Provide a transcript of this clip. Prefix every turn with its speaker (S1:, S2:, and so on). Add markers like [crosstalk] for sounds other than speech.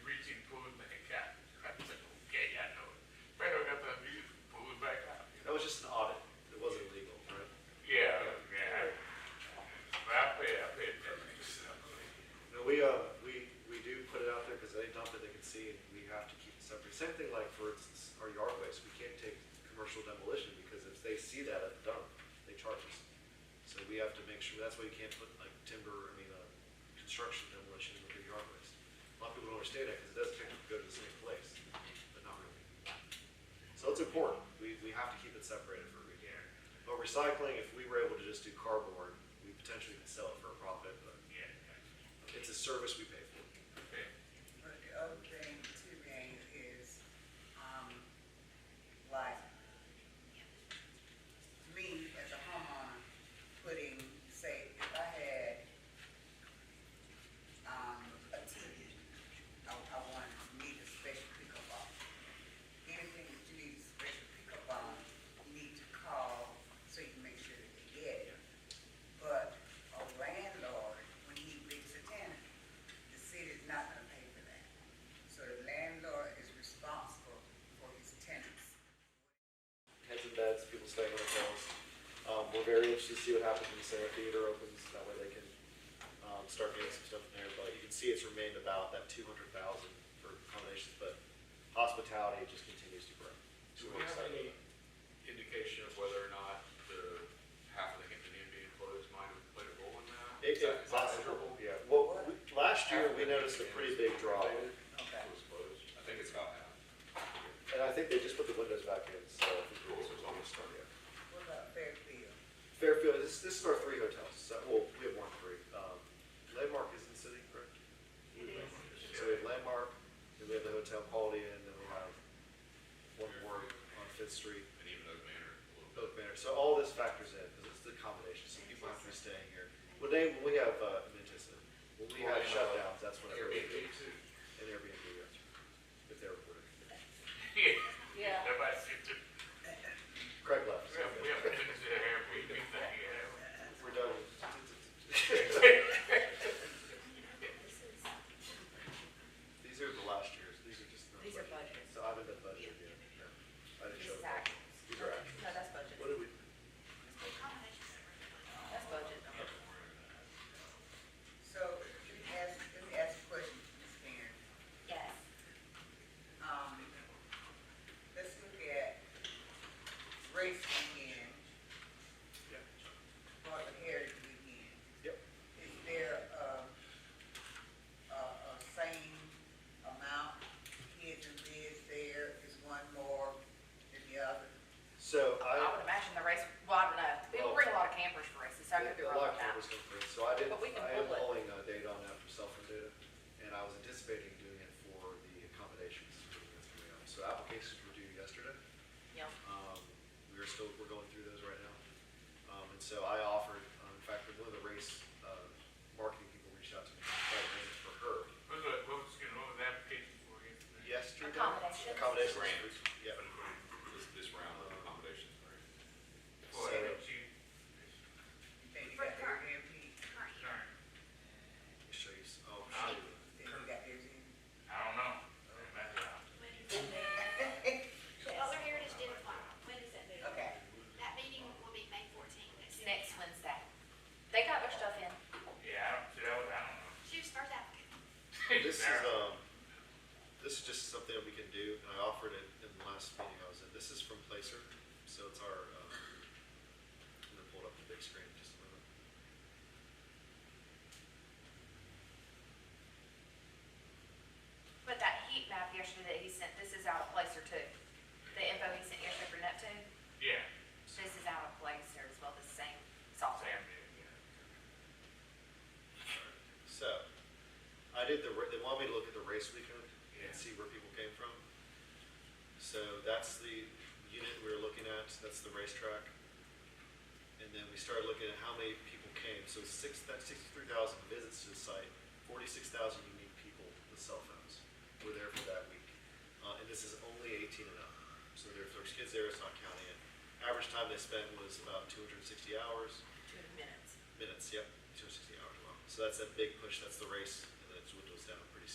S1: uh, same thing like, for instance, our yard waste, we can't take commercial demolition, because if they see that at the dump, they charge us. So we have to make sure, that's why you can't put like timber, I mean, uh, construction demolition with your yard waste. A lot of people don't understand that, because it does technically go to the same place, but not really. So it's important, we, we have to keep it separated for reading. But recycling, if we were able to just do cardboard, we potentially could sell it for a profit, but it's a service we pay for.
S2: But the other thing too, gang, is, um, like, me as a homeowner, putting, say, if I had, um, a TV, I, I want, need a special pickup on. Anything that you need a special pickup on, you need to call so you make sure that you get it. But a landlord, when he leaves a tenant, the city's not gonna pay for that. So the landlord is responsible for his tenants.
S1: heads and beds, people staying in hotels. Um, we're very interested to see what happens when the Sarah Theater opens, that way they can, um, start getting some stuff in there, but you can see it's remained about that two hundred thousand for accommodations, but hospitality just continues to grow.
S3: Do
S1: So
S3: we
S1: we're
S3: have
S1: excited
S3: any
S1: about
S3: indication of whether or not the half of the Hampton Inn being closed might have played a role in that? Is
S1: it. It,
S3: that-
S1: it's
S3: is that
S1: possible,
S3: measurable?
S1: yeah, well, we, last year, we
S3: Half of the
S1: noticed a
S3: Hampton
S1: pretty
S3: Inn
S1: big drop,
S3: was
S2: Okay.
S3: closed. I think it's
S4: [laughs]
S3: about half.
S1: and I think they just put the windows back in, so. I think
S3: Cool,
S1: we're-
S3: so it's almost done.
S2: What about Fairfield?
S1: Fairfield, this, this is our three hotels, so, well, we have one three, um, Landmark is in the city, correct? It is. So we have Landmark, and we have the Hotel Quality, and then we have one more on Fifth Street,
S3: And even those manner a little bit.
S1: Oak Manor, so all this factors in, because it's the accommodation, so people have to be staying here. When they, when we have, uh, in Manchester, when we have shutdowns, that's when everybody,
S3: Airbnb too.
S1: an Airbnb, yes, if they're reported.
S5: Yeah.
S4: Nobody's,
S1: Craig left.
S4: we
S1: so-
S4: haven't, we haven't finished the Airbnb thing yet.
S1: We're done. These are the last years, these are just. not
S6: These are budgets.
S1: budget. So I haven't done budget yet, no. I didn't
S6: This
S1: show.
S6: is
S1: them.
S6: actuals.
S1: These are actuals.
S6: No, that's budget.
S1: What did we,
S6: That's budget.
S2: So, let me ask, let me ask a question, Ms. Karen.
S6: Yes.
S2: Um, let's look at race weekend,
S1: yeah,
S2: Martin Heritage weekend.
S1: yep.
S2: Is there a, a, a same amount kids and kids there? Is one more than the other?
S1: So
S5: I
S1: I.
S5: would imagine the race, well, I don't know, people bring a lot of campers for races, so I could be
S1: A
S5: wrong
S1: lot
S5: with
S1: of
S5: that.
S1: cameras come through, so I didn't,
S5: But we can
S1: I am
S5: pull it.
S1: pulling uh, data on that from cell phone data, and I was anticipating doing it for the accommodations. for the three of them. So applications were due yesterday.
S5: Yeah,
S1: Um, we are still, we're going through those right now. Um, and so I offered, um, in fact, one of the race, uh, marketing people reached out to me, tried to arrange for her
S4: What was, what was, you know, what was the application for you?
S1: yesterday.
S5: Accommodations.
S3: Grants.
S1: Accommodations. Yeah.
S3: This, this round of accommodations. right?
S4: For
S1: So-
S4: it, you,
S2: You think you got
S6: For current.
S2: Airbnb?
S4: sorry,
S1: Let me show you some- oh,
S4: Uh,
S1: shoot.
S2: Think you got Airbnb?
S4: I don't know. That's out.
S7: Butler Heritage did apply. When is that meeting?
S2: [laughs] Okay.
S7: That meeting will be May fourteenth.
S5: it's next Wednesday. They got their stuff in.
S4: Yeah, I don't, see, that was, I don't know.
S7: She was first applicant.
S1: This is,
S4: Sarah.
S1: um, this is just something that we can do, and I offered it in the last meeting I was in. This is from Placer, so it's our, um, I'm gonna pull it up on the big screen in just a moment.
S5: But that heat map yesterday that he sent, this is out of place or two. The info he sent yesterday for Neptune,
S4: Yeah,
S5: this is out of place or as well, the same software.
S4: Sam did, yeah.
S1: So, I did the, ra- they want me to look at the race weekend
S4: Yeah.
S1: and see where people came from. So that's the unit we were looking at, that's the racetrack. And then we started looking at how many people came, so six, that's sixty-three thousand visits to the site, forty-six thousand unique people with cell phones were there for that week. Uh, and this is only eighteen and up, so there- if there's kids there, it's not counting it. Average time they spent was about two hundred and sixty hours
S5: Two minutes.
S1: minutes, yep, two hundred sixty hours long. So that's that big push, that's the race, and then it dwindles down pretty